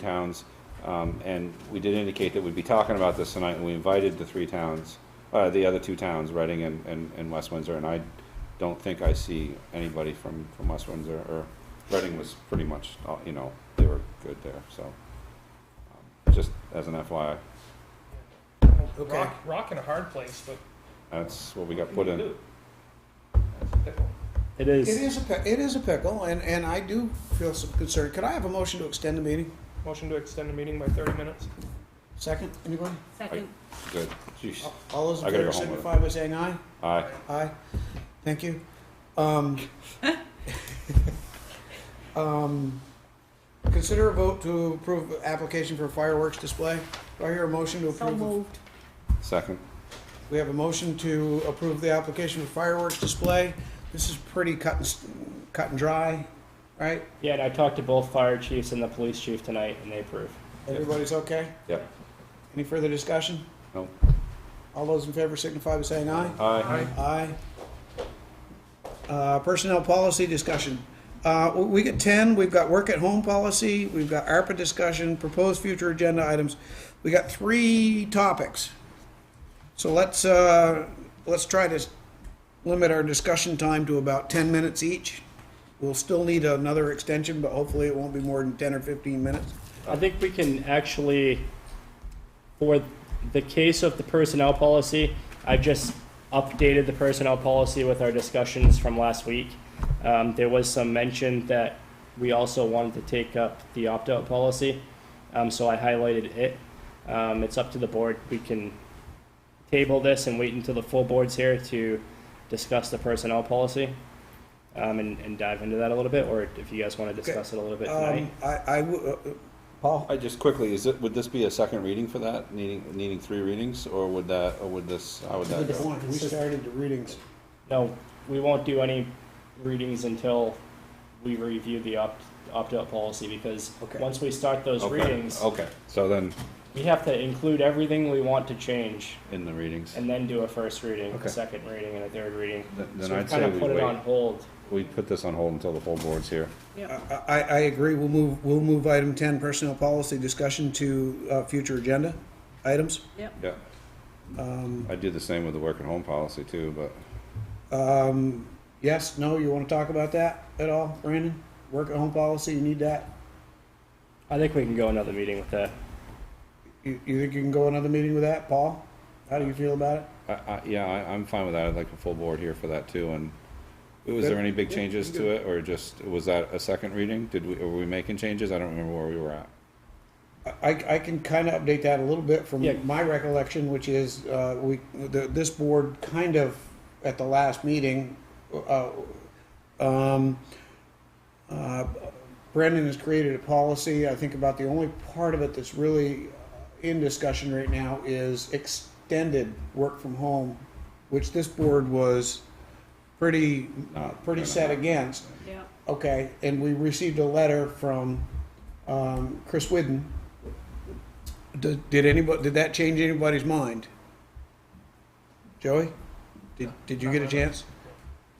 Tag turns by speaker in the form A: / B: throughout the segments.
A: towns, um, and we did indicate that we'd be talking about this tonight, and we invited the three towns, uh, the other two towns, Reading and, and, and West Windsor, and I don't think I see anybody from, from West Windsor, or Reading was pretty much, uh, you know, they were good there, so. um, Just as an FYI,
B: Okay.
C: Rock, rock in a hard place, but
A: that's what we got put
C: what do you
A: in.
C: do? That's a pickle.
D: It
B: It
D: is.
B: is a, pi- it is a pickle, and, and I do feel some concern. Could I have a motion to extend the meeting?
C: Motion to extend the meeting by thirty minutes.
B: Second, anybody?
E: Second.
A: Good, jeez,
B: All those in
A: I gotta
B: favor
A: go home with it.
B: signify by saying aye.
A: aye,
B: Aye. Thank you. Um, um, Consider a vote to approve application for fireworks display. Do I hear a motion to
E: So
B: approve? the-
E: moved.
A: second,
B: We have a motion to approve the application for fireworks display. This is pretty cut and, st- cut and dry, right?
D: Yeah, and I talked to both fire chiefs and the police chief tonight, and they approve.
B: Everybody's okay?
A: Yep.
B: Any further discussion?
A: No.
B: All those in favor signify by saying aye.
A: aye,
B: Aye. Uh, personnel policy discussion. Uh, we- we get ten, we've got work at home policy, we've got ARPA discussion, proposed future agenda items. We got three topics. So let's, uh, let's try to limit our discussion time to about ten minutes each. We'll still need another extension, but hopefully it won't be more than ten or fifteen minutes.
D: I think we can actually, for the case of the personnel policy, I've just updated the personnel policy with our discussions from last week. Um, there was some mention that we also wanted to take up the opt-out policy, um, so I highlighted it. Um, it's up to the board. We can table this and wait until the full board's here to discuss the personnel policy. Um, and, and dive into that a little bit, or if you guys wanna discuss it a little bit tonight.
B: Um, I, I, w- uh, uh, Paul?
A: I just quickly, is it, would this be a second reading for that, needing, needing three readings, or would that, or would this, how would that go?
B: We started the readings.
D: No, we won't do any readings until we review the opt, opt-out policy, because
B: Okay.
D: once we start those
A: Okay, Oh.
D: readings,
A: Okay, so then,
D: we have to include everything we want to change,
A: in the readings,
D: and then do a first reading,
A: Okay.
D: a second reading, and a third reading.
A: Th- then
D: So we
A: I'd say
D: kind of
A: we
D: put it on
A: wait,
D: hold.
A: we put this on hold until the full board's here.
B: I, I I agree, we'll move, we'll move item 10, personnel policy discussion to uh, future agenda items.
A: Yeah,
B: Um,
A: I do the same with the work and home policy too, but
B: um, Yes, no, you want to talk about that at all, Brandon? Work at home policy, you need that?
D: I think we can go another meeting with that.
B: You you think you can go another meeting with that, Paul? How do you feel about it?
A: I, I, yeah, I, I'm fine with that. I'd like the full board here for that too, and was there any big
B: Yeah,
A: changes
B: you
A: to it, or just, was that a second reading? Did we, were we making changes? I don't remember where we were at.
B: I, I can kind of update that a little bit from
D: Yeah.
B: my recollection, which is, uh, we, the, this board kind of, at the last meeting, uh, um, uh, Brendan has created a policy, I think about the only part of it that's really in discussion right now is extended work from home, which this board was pretty,
A: Not-
B: pretty set against.
E: Yeah.
B: Okay, and we received a letter from um, Chris Whidden. Did, did anybody, did that change anybody's mind? Joey? Did, did you get a chance?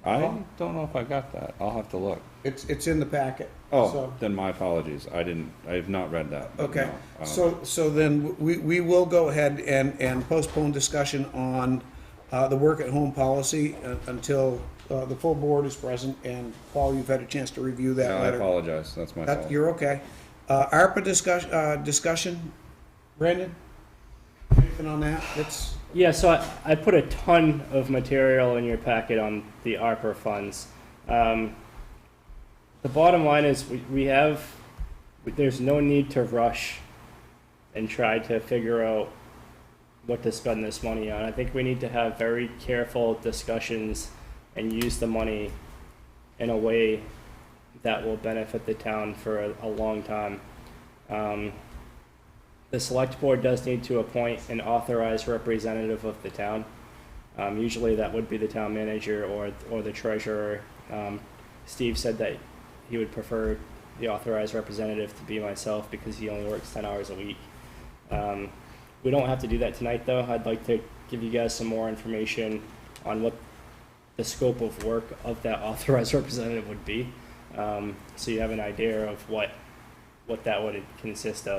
A: I don't know if I got that. I'll have to look.
B: It's, it's in the packet.
A: Oh,
B: so-
A: then my apologies. I didn't, I have not read that. but
B: Okay,
A: no, um,
B: so, so then we, we will go ahead and, and postpone discussion on uh, the work-at-home policy uh, until uh, the full board is present, and Paul, you've had a chance to review
A: no,
B: that
A: I
B: letter.
A: apologize. That's my
B: That,
A: fault.
B: you're okay. Uh, ARPA discussion, uh, discussion, Brandon? Anything on that? It's,
D: Yeah, so I, I put a ton of material in your packet on the ARPA funds. Um, the bottom line is we, we have, there's no need to rush and try to figure out what to spend this money on. I think we need to have very careful discussions and use the money in a way that will benefit the town for a, a long time. Um, the select board does need to appoint an authorized representative of the town. Um, usually that would be the town manager or, or the treasurer. Um, Steve said that he would prefer the authorized representative to be myself because he only works ten hours a week. Um, we don't have to do that tonight though. I'd like to give you guys some more information on what the scope of work of that authorized representative would be. Um, so you have an idea of what what that would consist of.